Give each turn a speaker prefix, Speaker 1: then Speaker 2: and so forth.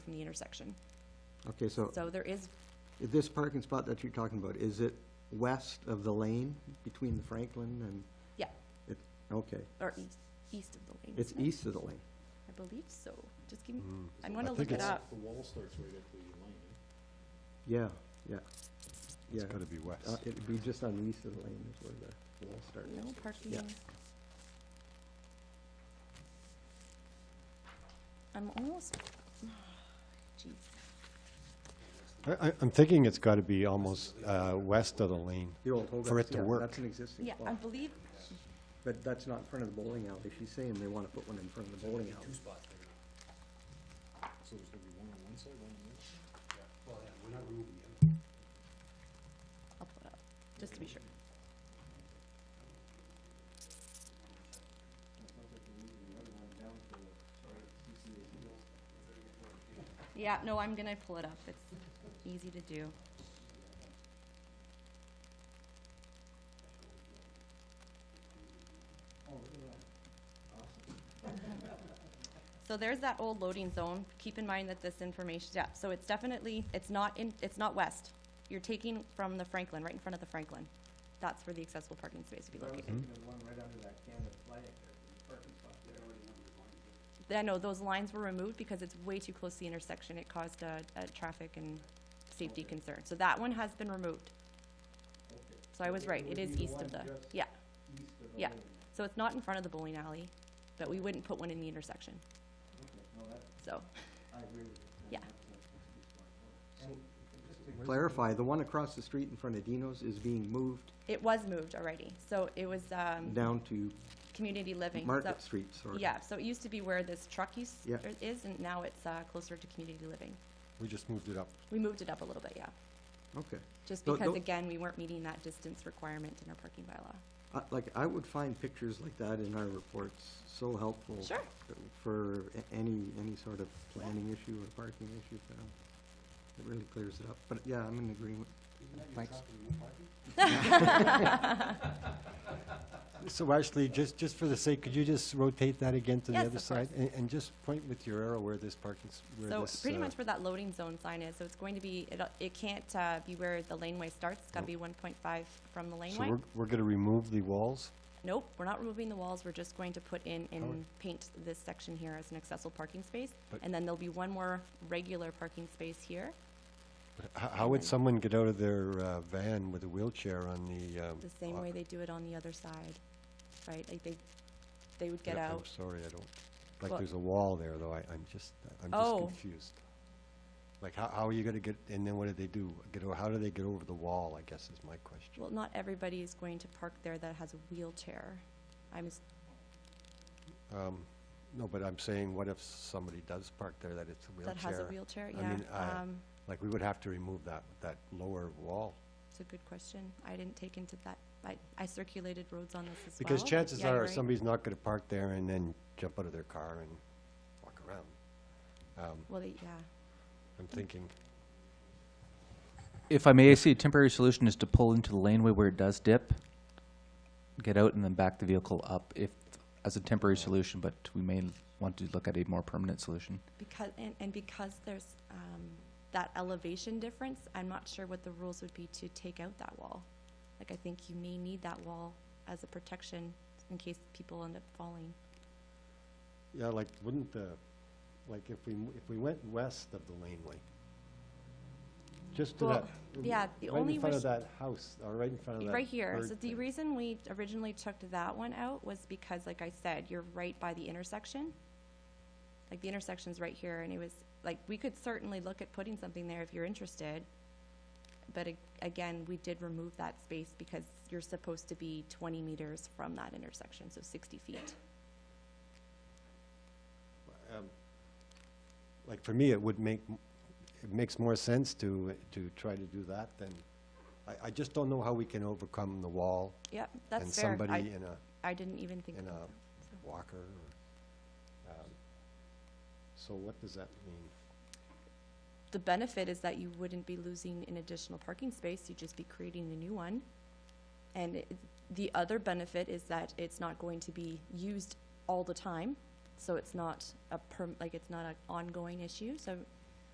Speaker 1: from the intersection.
Speaker 2: Okay, so
Speaker 1: So there is,
Speaker 2: this parking spot that you're talking about, is it west of the lane between the Franklin and?
Speaker 1: Yeah.
Speaker 2: It, okay,
Speaker 1: or east, east of the lane.
Speaker 2: it's
Speaker 1: isn't it?
Speaker 2: east of the lane.
Speaker 1: I believe so. Just give me,
Speaker 3: Mm.
Speaker 1: I'm gonna
Speaker 3: I
Speaker 1: look
Speaker 3: think
Speaker 1: it
Speaker 3: it's-
Speaker 1: up.
Speaker 4: The wall starts right at the lane.
Speaker 2: Yeah, yeah. Yeah,
Speaker 3: It's gotta be west.
Speaker 2: uh, it'd be just on the east of the lane is where the wall starts.
Speaker 1: No parking. I'm almost, jeez,
Speaker 3: Uh, I, I, I'm thinking it's gotta be almost, uh, west of the lane.
Speaker 2: The old Hogarth's,
Speaker 3: For it to
Speaker 2: yeah,
Speaker 3: work.
Speaker 2: That's an existing
Speaker 1: yeah,
Speaker 2: spot.
Speaker 1: I believe,
Speaker 2: But that's not in front of the bowling alley. She's saying they want to put one in front of the bowling alley.
Speaker 4: So there's gonna be one on one side, one on the other.
Speaker 1: I'll pull it up, just to be sure. Yeah, no, I'm gonna pull it up, it's easy to do. So there's that old loading zone, keep in mind that this information, yeah, so it's definitely, it's not in, it's not west. You're taking from the Franklin, right in front of the Franklin, that's where the accessible parking space would be located. uh, I know, those lines were removed because it's way too close to the intersection. It caused a, a traffic and safety concern. So that one has been removed. So I was right, it is east of the, yeah. Yeah, so it's not in front of the bowling alley, but we wouldn't put one in the intersection. So,
Speaker 2: Clarify, the one across the street in front of Dino's is being moved
Speaker 1: it was moved already, so it was, um,
Speaker 2: down to
Speaker 1: community living. So-
Speaker 2: Market Street, sort of.
Speaker 1: Yeah, so it used to be where this truck used,
Speaker 2: Yeah.
Speaker 1: er, is, and now it's, uh, closer to community living.
Speaker 3: We just moved it up.
Speaker 1: We moved it up a little bit, yeah,
Speaker 2: Okay.
Speaker 1: just
Speaker 2: Tho-
Speaker 1: because,
Speaker 2: tho-
Speaker 1: again, we weren't meeting that distance requirement in our parking bylaw.
Speaker 2: I- Like, I would find pictures like that in our reports so
Speaker 3: Oh,
Speaker 2: helpful.
Speaker 1: Sure.
Speaker 2: For a- any, any sort of planning issue or parking issue. for them. It really clears it up. But yeah, I'm in agreement. Thanks.
Speaker 3: So Ashley, just, just for the sake, could you just rotate that again to the
Speaker 1: Yes,
Speaker 3: other
Speaker 1: of
Speaker 3: side?
Speaker 1: course.
Speaker 3: And, and just point with your arrow where this parking, s- where
Speaker 1: So
Speaker 3: this.
Speaker 1: pretty
Speaker 3: uh,
Speaker 1: much where that loading zone sign is, so it's going to be, it, it can't, uh, be where the laneway starts, it's gotta
Speaker 3: Nope.
Speaker 1: be one point five from the
Speaker 3: So
Speaker 1: laneway.
Speaker 3: we're, we're gonna remove the walls?
Speaker 1: Nope, we're not removing the walls, we're just going to put in and
Speaker 3: Alright.
Speaker 1: paint this section here as an accessible parking space.
Speaker 3: But-
Speaker 1: And then there'll be one more regular parking space here,
Speaker 3: How, how would someone get out of their, uh, van with a wheelchair on the, um?
Speaker 1: the same way
Speaker 3: block?
Speaker 1: they do it on the other side, right? Like they, they would get
Speaker 3: Yeah,
Speaker 1: out.
Speaker 3: I'm sorry, I don't, like,
Speaker 1: Well-
Speaker 3: there's a wall there, though, I, I'm just, I'm just
Speaker 1: Oh.
Speaker 3: confused. Like, how, how are you gonna get, and then what do they do? Get, o- how do they get over the wall, I guess is my question.
Speaker 1: Well, not everybody is going to park there that has a wheelchair. I'm, s-
Speaker 3: Um, no, but I'm saying, what if somebody does park there that it's a wheelchair?
Speaker 1: that has a wheelchair,
Speaker 3: I
Speaker 1: yeah.
Speaker 3: mean, I-
Speaker 1: Um,
Speaker 3: Like, we would have to remove that, that lower wall.
Speaker 1: It's a good question. I didn't take into that, I, I circulated roads on this as well.
Speaker 3: Because
Speaker 1: but
Speaker 3: chances
Speaker 1: yeah, you're
Speaker 3: are,
Speaker 1: right.
Speaker 3: somebody's not gonna park there and then jump out of their car and walk around. Um,
Speaker 1: Well, they- yeah,
Speaker 3: I'm
Speaker 1: Mm.
Speaker 3: thinking,
Speaker 5: If I may, I see a temporary solution is to pull into the laneway where it does dip, get out and then back the vehicle up if, as a temporary solution, but we may want to look at a more permanent solution.
Speaker 1: because, and, and because there's, um, that elevation difference, I'm not sure what the rules would be to take out that wall. Like, I think you may need that wall as a protection in case people end up falling.
Speaker 3: Yeah, like, wouldn't the, like, if we, m- if we went west of the laneway, just to
Speaker 1: Well,
Speaker 3: that.
Speaker 1: yeah, the only
Speaker 3: Mm-hmm. Right in front
Speaker 1: res-
Speaker 3: of that house, or right in front of that.
Speaker 1: Right here,
Speaker 3: bird
Speaker 1: so the
Speaker 3: thing.
Speaker 1: reason we originally took that one out was because, like I said, you're right by the intersection. Like, the intersection's right here, and it was, like, we could certainly look at putting something there if you're interested. But a- again, we did remove that space because you're supposed to be twenty meters from that intersection, so sixty feet.
Speaker 3: Um, Like, for me, it would make, m- it makes more sense to, to try to do that than, I, I just don't know how we can overcome the wall
Speaker 1: Yep,
Speaker 3: and
Speaker 1: that's fair.
Speaker 3: somebody
Speaker 1: I,
Speaker 3: in a
Speaker 1: I didn't even think
Speaker 3: in
Speaker 1: about
Speaker 3: a-
Speaker 1: that. so.
Speaker 3: walker. or, um, So what does that mean?
Speaker 1: The benefit is that you wouldn't be losing an additional parking space, you'd just be creating a new one. And it- the other benefit is that it's not going to be used all the time, so it's not a perm, like, it's not an ongoing issue, so